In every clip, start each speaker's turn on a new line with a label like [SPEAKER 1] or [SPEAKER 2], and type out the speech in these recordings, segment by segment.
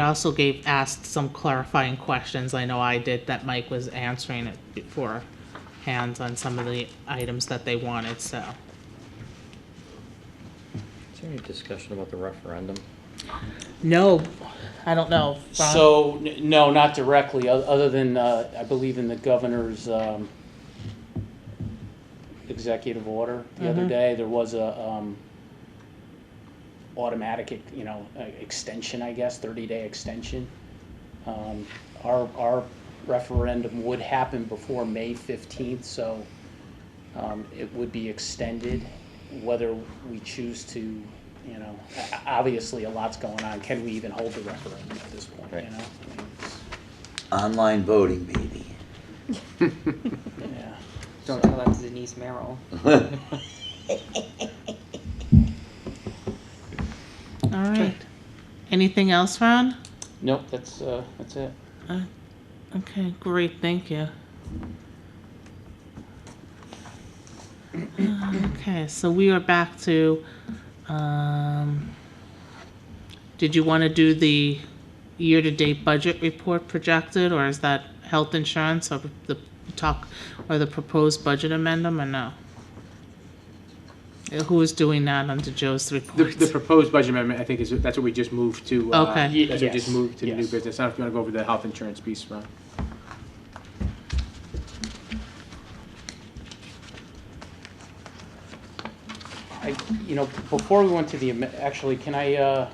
[SPEAKER 1] I also gave, asked some clarifying questions, I know I did, that Mike was answering it beforehand on some of the items that they wanted, so.
[SPEAKER 2] Is there any discussion about the referendum?
[SPEAKER 1] No, I don't know. Ron?
[SPEAKER 3] So, n- no, not directly, o- other than, uh, I believe in the governor's um, executive order the other day, there was a um, automatic, ex- you know, uh, extension, I guess, 30-day extension. Um, Our, our referendum would happen before May 15th, so um, it would be extended, whether we choose to, you know, o- o- obviously, a lot's going on. Can we even hold the referendum at this point,
[SPEAKER 2] Right.
[SPEAKER 3] you know? I mean, it's-
[SPEAKER 4] Online voting, baby.
[SPEAKER 3] Yeah.
[SPEAKER 5] Don't tell that to Denise Merrill.
[SPEAKER 1] All right. Anything else, Ron?
[SPEAKER 3] Nope, that's, uh, that's it.
[SPEAKER 1] Okay, great, thank you. Okay, so we are back to, um, did you want to do the year-to-date budget report projected, or is that health insurance or the talk, or the proposed budget amendment, or no? Uh, Who was doing that under Joe's
[SPEAKER 6] The,
[SPEAKER 1] report?
[SPEAKER 6] the proposed budget amendment, I think, is, that's what we just moved to. uh,
[SPEAKER 1] Okay.
[SPEAKER 3] Ye-
[SPEAKER 6] That's what we just
[SPEAKER 3] yes,
[SPEAKER 6] moved to the new
[SPEAKER 3] yes.
[SPEAKER 6] business. I don't know if you want to go over the health insurance piece, Ron.
[SPEAKER 3] I, you know, before we went to the, am- actually, can I, uh,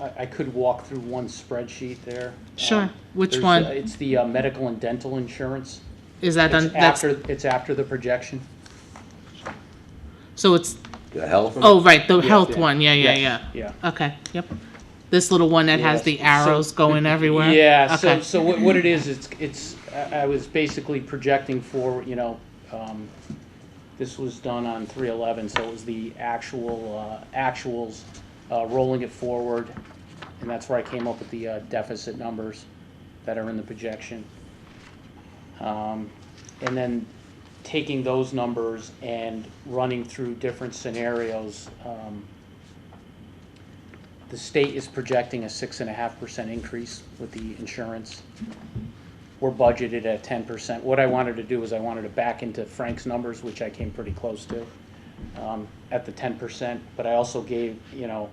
[SPEAKER 3] I, I could walk through one spreadsheet there.
[SPEAKER 1] Sure.
[SPEAKER 3] Um,
[SPEAKER 1] Which
[SPEAKER 3] there's,
[SPEAKER 1] one?
[SPEAKER 3] uh, It's the uh, medical and dental insurance.
[SPEAKER 1] Is that, on-
[SPEAKER 3] It's
[SPEAKER 1] that's,
[SPEAKER 3] after, it's after the projection.
[SPEAKER 1] so it's,
[SPEAKER 4] The health?
[SPEAKER 1] oh, right, the health
[SPEAKER 6] yeah.
[SPEAKER 1] one, yeah, yeah,
[SPEAKER 3] Yes,
[SPEAKER 1] yeah.
[SPEAKER 3] Yeah.
[SPEAKER 1] Okay, yep. This little one that has
[SPEAKER 3] Yes,
[SPEAKER 1] the
[SPEAKER 3] so-
[SPEAKER 1] arrows going everywhere?
[SPEAKER 3] Yeah, so,
[SPEAKER 1] Okay.
[SPEAKER 3] so what, what it is, it's, it's, I, I was basically projecting for, you know, um, this was done on three eleven, so it was the actual, uh, actuals, uh, rolling it forward. And that's where I came up with the, uh, deficit numbers that are in the projection. Um, and then taking those numbers and running through different scenarios, um, the state is projecting a six and a half percent increase with the insurance. We're budgeted at ten percent. What I wanted to do is I wanted to back into Frank's numbers, which I came pretty close to, um, at the ten percent, but I also gave, you know,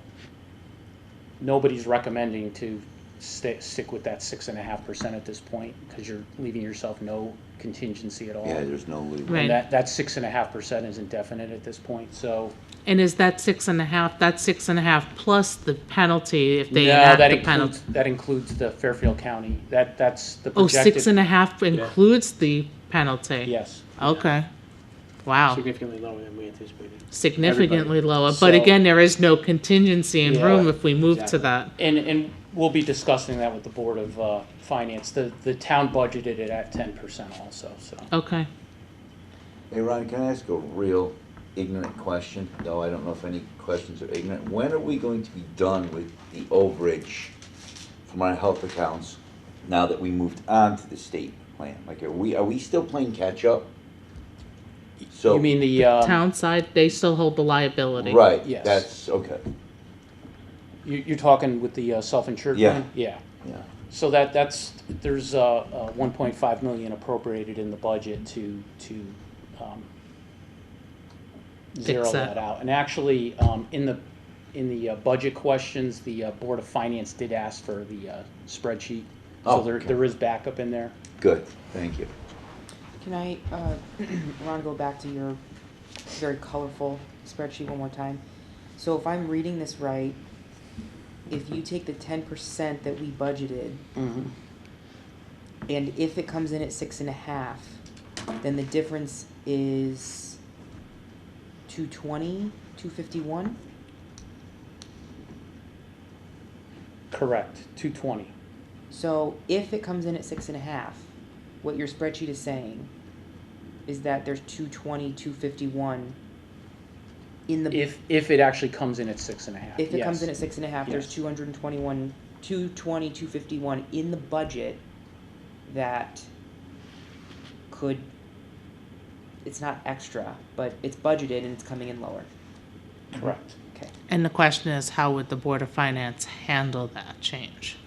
[SPEAKER 3] nobody's recommending to stick, stick with that six and a half percent at this point, because you're leaving yourself no contingency at all.
[SPEAKER 4] Yeah, there's no legal.
[SPEAKER 1] Right.
[SPEAKER 3] And that, that six and a half percent is indefinite at this point, so.
[SPEAKER 1] And is that six and a half, that's six and a half plus the penalty if they
[SPEAKER 3] No,
[SPEAKER 1] enact
[SPEAKER 3] that
[SPEAKER 1] the penalty?
[SPEAKER 3] includes That includes the Fairfield County, that, that's the
[SPEAKER 1] Oh,
[SPEAKER 3] projected.
[SPEAKER 1] six and a half includes the penalty?
[SPEAKER 3] Yes,
[SPEAKER 1] Okay. Wow,
[SPEAKER 6] Significantly lower than we anticipated.
[SPEAKER 1] significantly lower, but
[SPEAKER 3] So-
[SPEAKER 1] again, there is no contingency in
[SPEAKER 3] Yeah,
[SPEAKER 1] room if we move to
[SPEAKER 6] exactly.
[SPEAKER 1] that.
[SPEAKER 3] and, and we'll be discussing that with the Board of, uh, Finance, the, the town budgeted it at ten percent also, so.
[SPEAKER 1] Okay,
[SPEAKER 4] Hey, Ron, can I ask a real ignorant question? Though I don't know if any questions are ignorant. When are we going to be done with the overage from our health accounts now that we moved on to the state plan? Like, are we, are we still playing catch-up? So
[SPEAKER 3] You mean the, um,
[SPEAKER 1] town side, they still hold the liability.
[SPEAKER 4] Right,
[SPEAKER 3] Yes.
[SPEAKER 4] that's, okay,
[SPEAKER 3] you, you're talking with the uh, self-insured
[SPEAKER 4] Yeah.
[SPEAKER 3] plan? Yeah.
[SPEAKER 4] yeah.
[SPEAKER 3] So that, that's, there's, uh, uh, one point five million appropriated in the budget to, to, um, zero
[SPEAKER 1] that.
[SPEAKER 3] that out. And actually, um, in the, in the, uh, budget questions, the, uh, Board of Finance did ask for the, uh, spreadsheet. So
[SPEAKER 4] Oh,
[SPEAKER 3] there,
[SPEAKER 4] okay.
[SPEAKER 3] there is backup in there.
[SPEAKER 4] Good, thank you.
[SPEAKER 5] Can I, uh, Ron, go back to your very colorful spreadsheet one more time? So if I'm reading this right, if you take the ten percent that we budgeted,
[SPEAKER 3] Mm-hmm.
[SPEAKER 5] and if it comes in at six and a half, then the difference is two twenty, two fifty-one?
[SPEAKER 3] Correct, two twenty.
[SPEAKER 5] So if it comes in at six and a half, what your spreadsheet is saying is that there's 220, 251 in the.
[SPEAKER 3] If, if it actually comes in at six and a half.
[SPEAKER 5] if it comes
[SPEAKER 3] yes.
[SPEAKER 5] in at six and a half, there's
[SPEAKER 3] Yes.
[SPEAKER 5] 221, 220, 251 in the budget that could. It's not extra, but it's budgeted and it's coming in lower.
[SPEAKER 3] Correct.
[SPEAKER 5] Okay.
[SPEAKER 1] And the question is, how would the Board of Finance handle that change?